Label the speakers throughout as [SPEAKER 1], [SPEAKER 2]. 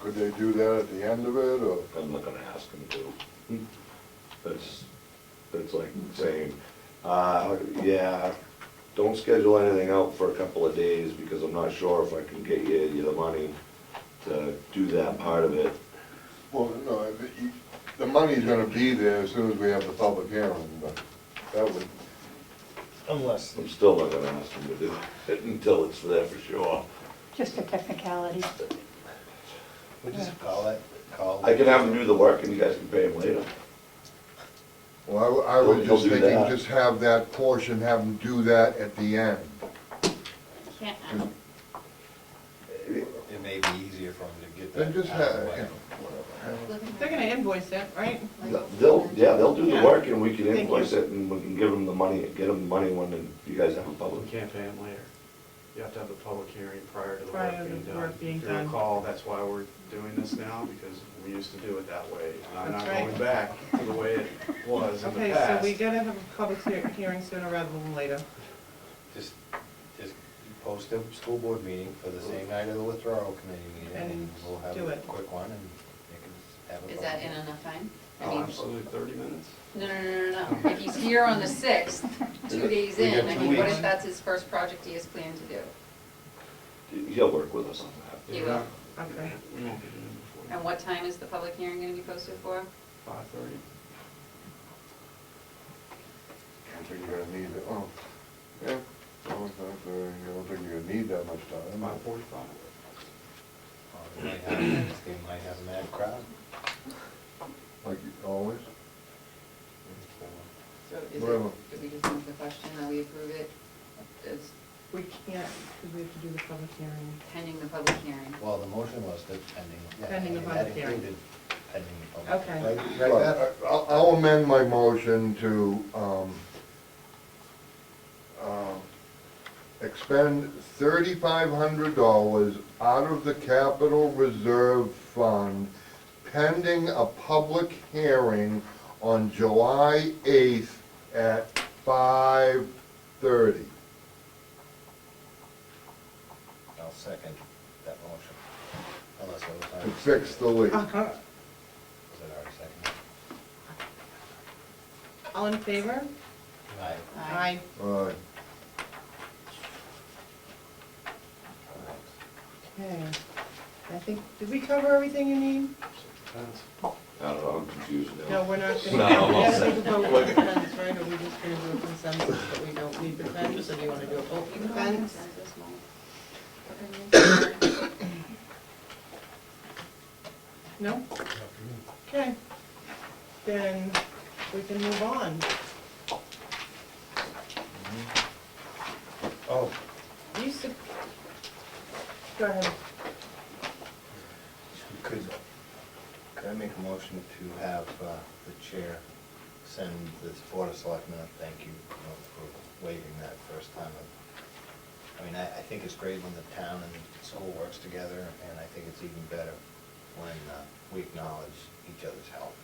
[SPEAKER 1] Could they do that at the end of it, or?
[SPEAKER 2] I'm not gonna ask them to. That's, that's like saying, uh, yeah, don't schedule anything out for a couple of days because I'm not sure if I can get you, you the money to do that part of it.
[SPEAKER 1] Well, no, the, you- the money's gonna be there as soon as we have the public hearing, but that would,
[SPEAKER 3] Unless,
[SPEAKER 2] I'm still not gonna ask them to do it until it's there for sure.
[SPEAKER 4] Just a technicality.
[SPEAKER 3] we just call it, call.
[SPEAKER 2] I can have them do the work and you guys can pay them later.
[SPEAKER 1] well, I wa- I was
[SPEAKER 2] They'll- they'll
[SPEAKER 1] just
[SPEAKER 2] do
[SPEAKER 1] thinking,
[SPEAKER 2] that.
[SPEAKER 1] just have that portion, have them do that at the end.
[SPEAKER 5] Can't,
[SPEAKER 3] It may be easier for them to get
[SPEAKER 1] Then
[SPEAKER 3] that.
[SPEAKER 1] just
[SPEAKER 3] out of
[SPEAKER 1] have,
[SPEAKER 3] the way.
[SPEAKER 1] yeah, whatever.
[SPEAKER 6] They're gonna invoice it, right?
[SPEAKER 2] They'll, yeah, they'll do the
[SPEAKER 6] Yeah.
[SPEAKER 2] work and we can
[SPEAKER 6] Thank you.
[SPEAKER 2] invoice it and we can give them the money, get them the money when you guys have a
[SPEAKER 7] We
[SPEAKER 2] public hearing.
[SPEAKER 7] can't pay them later. You have to have the public hearing prior to the
[SPEAKER 6] Prior
[SPEAKER 7] work
[SPEAKER 6] to
[SPEAKER 7] being
[SPEAKER 6] the
[SPEAKER 7] done.
[SPEAKER 6] work being
[SPEAKER 7] If you
[SPEAKER 6] done.
[SPEAKER 7] recall, that's why we're doing this now, because we used to do it that way. And I'm not
[SPEAKER 6] That's right.
[SPEAKER 7] going back to the way it was in the
[SPEAKER 6] Okay, so we
[SPEAKER 7] past.
[SPEAKER 6] gotta have a public hear- hearing sooner rather than later.
[SPEAKER 3] Just, just post a school board meeting for the same night of the withdrawal committee meeting, and
[SPEAKER 6] And
[SPEAKER 3] we'll have
[SPEAKER 6] do
[SPEAKER 3] a
[SPEAKER 6] it.
[SPEAKER 3] quick one, and they can have a.
[SPEAKER 5] is that in enough time? I
[SPEAKER 7] Oh,
[SPEAKER 5] mean,
[SPEAKER 7] absolutely, thirty minutes?
[SPEAKER 5] No, no, no, no, no, if he's here on the sixth, two days
[SPEAKER 3] We got
[SPEAKER 5] in, I
[SPEAKER 3] two
[SPEAKER 5] mean, what
[SPEAKER 3] weeks.
[SPEAKER 5] if that's his first project he has planned to do?
[SPEAKER 2] He'll work with us on that.
[SPEAKER 5] He
[SPEAKER 7] We're
[SPEAKER 5] will.
[SPEAKER 7] not-
[SPEAKER 6] Okay.
[SPEAKER 7] We won't be doing it
[SPEAKER 5] And
[SPEAKER 7] before
[SPEAKER 5] what time is the public hearing gonna be posted for?
[SPEAKER 7] five thirty.
[SPEAKER 1] I don't think you're gonna need it, oh, yeah, I don't think, uh, I don't think you're gonna need that much time.
[SPEAKER 7] Five forty-five.
[SPEAKER 3] Or Oh, They might have- they might have a mad crowd.
[SPEAKER 1] Like always?
[SPEAKER 5] So is it,
[SPEAKER 1] Whatever.
[SPEAKER 5] do we just move the question, that we approve it, it's
[SPEAKER 6] We can't, because we have to do the public hearing.
[SPEAKER 5] pending the public hearing?
[SPEAKER 3] Well, the motion was that pending. yeah,
[SPEAKER 6] Pending the
[SPEAKER 3] that
[SPEAKER 6] public hearing.
[SPEAKER 3] included Pending the public.
[SPEAKER 6] Okay.
[SPEAKER 3] Right, right, Beth?
[SPEAKER 1] Well, I- I'll I'll amend my motion to um, um, expend thirty-five hundred dollars out of the capital reserve fund pending a public hearing on July eighth at five thirty.
[SPEAKER 3] I'll second that motion. Unless it was.
[SPEAKER 1] To
[SPEAKER 3] already
[SPEAKER 1] fix the
[SPEAKER 3] seconded.
[SPEAKER 1] leak.
[SPEAKER 6] Uh-huh.
[SPEAKER 3] Was it already seconded?
[SPEAKER 6] All in favor?
[SPEAKER 3] Aye.
[SPEAKER 5] Aye.
[SPEAKER 1] Alright,
[SPEAKER 6] Okay. I think, did we cover everything you need?
[SPEAKER 7] Depends.
[SPEAKER 2] I don't know, I'm confused
[SPEAKER 6] No,
[SPEAKER 2] now.
[SPEAKER 6] we're not gonna.
[SPEAKER 2] No, I'm all
[SPEAKER 6] We have to
[SPEAKER 2] set.
[SPEAKER 6] vote with the fence, right, or we just gonna do a consensus that we don't need the fence, or do you wanna do it open fence? No? Okay. Then we can move on.
[SPEAKER 3] Oh,
[SPEAKER 6] You said, go ahead.
[SPEAKER 3] could, could I make a motion to have uh, the chair send this board of selectmen a thank you note for waiving that first time? of- I mean, I, I think it's great when the town and the school works together, and I think it's even better when uh, we acknowledge each other's help.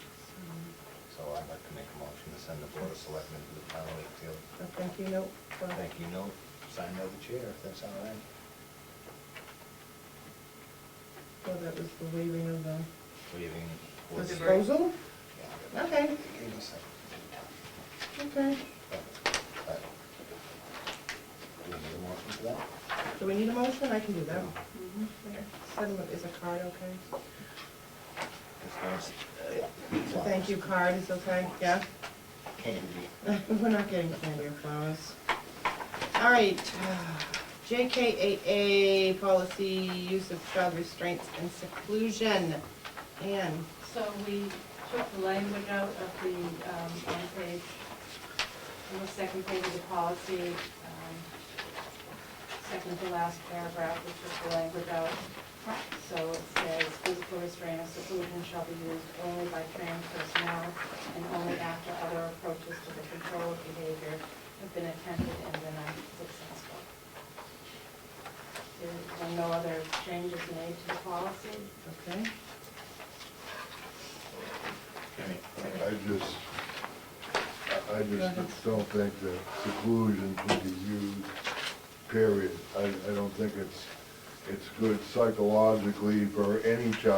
[SPEAKER 3] So I'd like to make a motion to send the board of selectmen to the town of Wakefield.
[SPEAKER 6] A thank you note. for-
[SPEAKER 3] Thank you note, signed by the chair, if that's all right.
[SPEAKER 6] Well, that was the waiving of the
[SPEAKER 3] Waiving.
[SPEAKER 6] the
[SPEAKER 3] was-
[SPEAKER 6] disposal?
[SPEAKER 3] Yeah.
[SPEAKER 6] Okay,
[SPEAKER 3] Give me a second.
[SPEAKER 6] okay.
[SPEAKER 3] Do we need a motion for that?
[SPEAKER 6] Do we need a motion? I can do that. Settlement is a card, okay? The Thank you card is okay, yeah?
[SPEAKER 3] Candy.
[SPEAKER 6] We're not getting candy or flowers. All right, JKAA, policy, use of child restraints and seclusion. Anne?
[SPEAKER 8] So we took the language out of the, um, on page, on the second page of the policy, um, second to last paragraph, we took the language out. So it says, physical restraint or seclusion shall be used only by trained personnel and only after other approaches to the control of behavior have been attempted and been unsuccessful. There were no other changes made to the policy.
[SPEAKER 6] Okay.
[SPEAKER 1] I just, I- I just don't think that seclusion should be used, period. I, I don't think it's, it's good psychologically for any child